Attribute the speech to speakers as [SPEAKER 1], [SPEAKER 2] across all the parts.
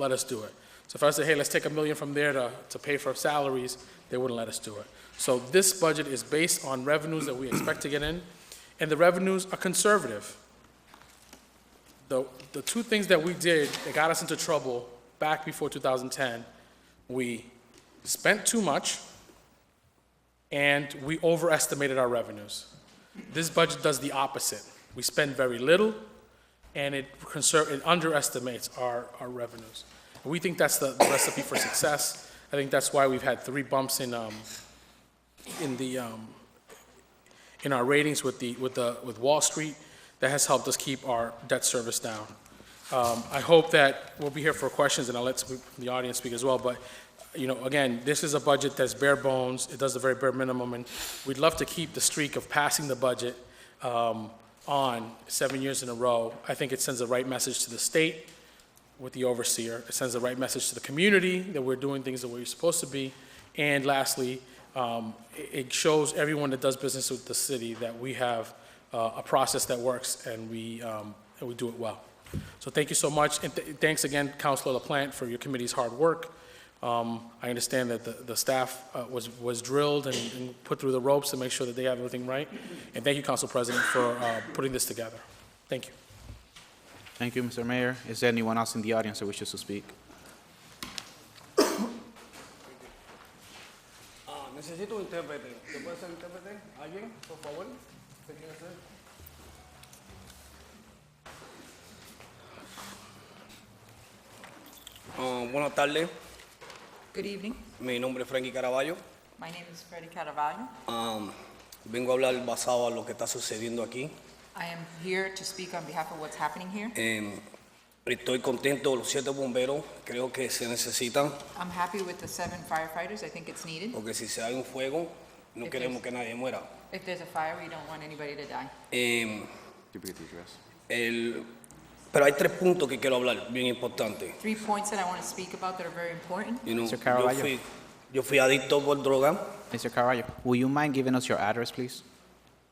[SPEAKER 1] let us do it. So if I say, hey, let's take a million from there to, to pay for salaries, they wouldn't let us do it. So this budget is based on revenues that we expect to get in, and the revenues are conservative. The, the two things that we did that got us into trouble back before 2010, we spent too much, and we overestimated our revenues. This budget does the opposite. We spend very little, and it conser, it underestimates our, our revenues. We think that's the the recipe for success. I think that's why we've had three bumps in, um, in the, um, in our ratings with the, with the, with Wall Street. That has helped us keep our debt service down. Um, I hope that we'll be here for questions, and I'll let some- the audience speak as well, but, you know, again, this is a budget that's bare bones, it does the very bare minimum, and we'd love to keep the streak of passing the budget um, on seven years in a row. I think it sends the right message to the state with the overseer, it sends the right message to the community that we're doing things the way we're supposed to be, and lastly, um, it it shows everyone that does business with the city that we have uh, a process that works and we, um, and we do it well. So thank you so much, and th- thanks again, Counselor LaPlante, for your committee's hard work. Um, I understand that the, the staff uh, was, was drilled and, and put through the ropes to make sure that they have everything right. And thank you, Council President, for uh, putting this together. Thank you.
[SPEAKER 2] Thank you, Mr. Mayor. Is there anyone else in the audience that wishes to speak?
[SPEAKER 3] Ah, necesito un intérprete. ¿Te puede ser intérprete? ¿Alguien, por favor? ¿Se quiere hacer? Ah, buenas tardes,
[SPEAKER 4] Good evening.
[SPEAKER 3] mi nombre es Frankie Caraballo.
[SPEAKER 4] My name is Freddy Caravaggio.
[SPEAKER 3] Ah, vengo a hablar basado a lo que está sucediendo aquí.
[SPEAKER 4] I am here to speak on behalf of what's happening here.
[SPEAKER 3] Eh, estoy contento, los siete bomberos creo que se necesitan,
[SPEAKER 4] I'm happy with the seven firefighters. I think it's needed.
[SPEAKER 3] porque si se da un fuego, no
[SPEAKER 4] Efecto.
[SPEAKER 3] queremos que nadie muera.
[SPEAKER 4] If there's a fire, we don't want anybody to die.
[SPEAKER 3] Eh, el- pero hay tres puntos que quiero hablar, bien importantes.
[SPEAKER 4] Three points that I want to speak about that are very important.
[SPEAKER 3] You know,
[SPEAKER 2] Mr.
[SPEAKER 3] yo,
[SPEAKER 2] Caravaggio.
[SPEAKER 3] fui, yo fui adicto por droga.
[SPEAKER 2] Mr. Carvalho, will you mind giving us your address, please?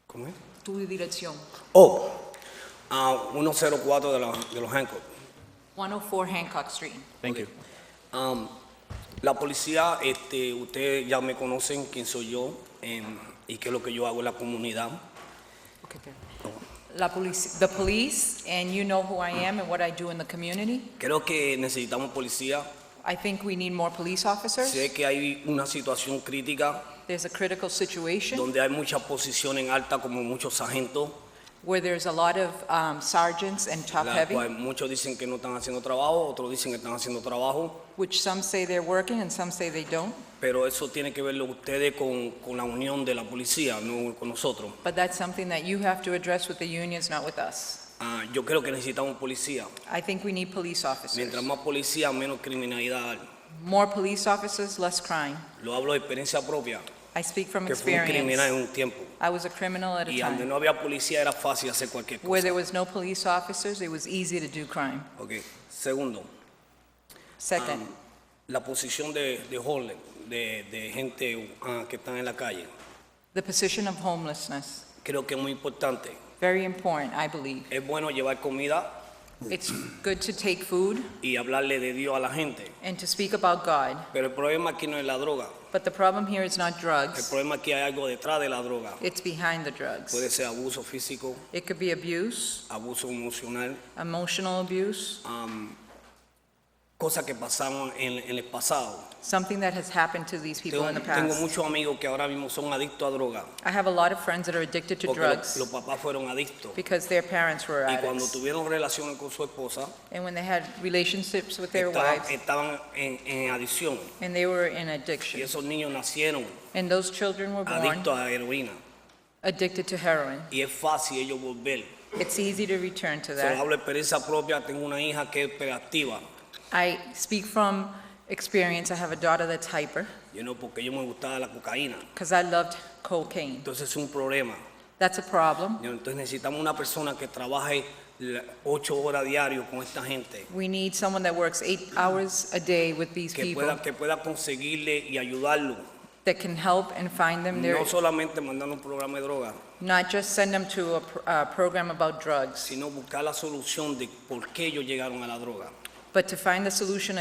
[SPEAKER 3] ¿Cómo es?
[SPEAKER 4] Tu dirección,
[SPEAKER 3] Oh, a 104 de, la- de los Hancock.
[SPEAKER 4] 104 Hancock Street.
[SPEAKER 2] Thank you.
[SPEAKER 3] Um, la policía, este, ustedes ya me conocen quién soy yo em, y qué es lo que yo hago en la comunidad.
[SPEAKER 4] Okay, there. La police, the police, and you know who I am and what I do in the community.
[SPEAKER 3] Creo que necesitamos policía.
[SPEAKER 4] I think we need more police officers.
[SPEAKER 3] Sé que hay una situación crítica
[SPEAKER 4] There's a critical situation
[SPEAKER 3] donde hay muchas posiciones altas como muchos sargentos,
[SPEAKER 4] where there's a lot of um, sergeants and top
[SPEAKER 3] la
[SPEAKER 4] heavy.
[SPEAKER 3] cual muchos dicen que no están haciendo trabajo, otros dicen que están haciendo trabajo,
[SPEAKER 4] which some say they're working and some say they don't,
[SPEAKER 3] pero eso tiene que verlo ustedes con, con la unión de la policía, no con nosotros.
[SPEAKER 4] but that's something that you have to address with the unions, not with us.
[SPEAKER 3] Ah, yo creo que necesitamos policía.
[SPEAKER 4] I think we need police officers.
[SPEAKER 3] Mientras más policía, menos criminalidad. hay.
[SPEAKER 4] More police officers, less crime.
[SPEAKER 3] Lo hablo de experiencia propia,
[SPEAKER 4] I speak from
[SPEAKER 3] que fui un criminal en
[SPEAKER 4] experience.
[SPEAKER 3] un tiempo.
[SPEAKER 4] I was a criminal at a
[SPEAKER 3] Y donde
[SPEAKER 4] time.
[SPEAKER 3] no había policía era fácil hacer cualquier
[SPEAKER 4] Where
[SPEAKER 3] cosa.
[SPEAKER 4] there was no police officers, it was easy to do crime.
[SPEAKER 3] Ok. Segundo, ah,
[SPEAKER 4] Second,
[SPEAKER 3] la posición de, de Harlem, de, de gente ah, que están en la calle,
[SPEAKER 4] the position of homelessness,
[SPEAKER 3] creo que es muy importante.
[SPEAKER 4] very important, I believe.
[SPEAKER 3] Es bueno llevar comida
[SPEAKER 4] It's good to take food
[SPEAKER 3] y hablarle de Dios a la gente.
[SPEAKER 4] and to speak about God,
[SPEAKER 3] Pero el problema aquí no es la droga.
[SPEAKER 4] but the problem here is not
[SPEAKER 3] El
[SPEAKER 4] drugs,
[SPEAKER 3] problema aquí hay algo detrás de la droga.
[SPEAKER 4] it's behind the
[SPEAKER 3] Puede
[SPEAKER 4] drugs.
[SPEAKER 3] ser abuso físico,
[SPEAKER 4] It could be abuse,
[SPEAKER 3] abuso emocional,
[SPEAKER 4] emotional abuse,
[SPEAKER 3] am, cosas que pasaron en, en el pasado.
[SPEAKER 4] something that has happened to these people
[SPEAKER 3] Tengo,
[SPEAKER 4] in the
[SPEAKER 3] tengo
[SPEAKER 4] past.
[SPEAKER 3] muchos amigos que ahora mismo son adictos a droga.
[SPEAKER 4] I have a lot of friends that are addicted to
[SPEAKER 3] Porque lo-
[SPEAKER 4] drugs
[SPEAKER 3] los papás fueron adictos.
[SPEAKER 4] because their parents were
[SPEAKER 3] Y cuando
[SPEAKER 4] addicts.
[SPEAKER 3] tuvieron relaciones con su esposa,
[SPEAKER 4] And when they had relationships with their
[SPEAKER 3] estaban,
[SPEAKER 4] wives,
[SPEAKER 3] estaban en, en adicción.
[SPEAKER 4] and they were in
[SPEAKER 3] Y
[SPEAKER 4] addiction.
[SPEAKER 3] esos niños nacieron
[SPEAKER 4] And those children were born
[SPEAKER 3] adictos a heroína.
[SPEAKER 4] addicted to heroin.
[SPEAKER 3] Y es fácil ellos volver.
[SPEAKER 4] It's easy to return
[SPEAKER 3] Se
[SPEAKER 4] to
[SPEAKER 3] lo
[SPEAKER 4] that.
[SPEAKER 3] hablo de experiencia propia. Tengo una hija que es hiperactiva.
[SPEAKER 4] I speak from experience. I have a daughter that's hyper
[SPEAKER 3] You know, porque yo me gustaba la cocaína.
[SPEAKER 4] because I loved cocaine.
[SPEAKER 3] Entonces es un problema.
[SPEAKER 4] That's a problem.
[SPEAKER 3] You know, Entonces necesitamos una persona que trabaje la- ocho horas diario con esta gente.
[SPEAKER 4] We need someone that works eight hours a day with these
[SPEAKER 3] que
[SPEAKER 4] people
[SPEAKER 3] pueda, que pueda conseguirle y ayudarlo.
[SPEAKER 4] that can help and find them their,
[SPEAKER 3] No solamente mandando un programa de droga,
[SPEAKER 4] not just send them to a pr- a program about drugs.
[SPEAKER 3] sino buscar la solución de por qué ellos llegaron a la droga.
[SPEAKER 4] But to find the solution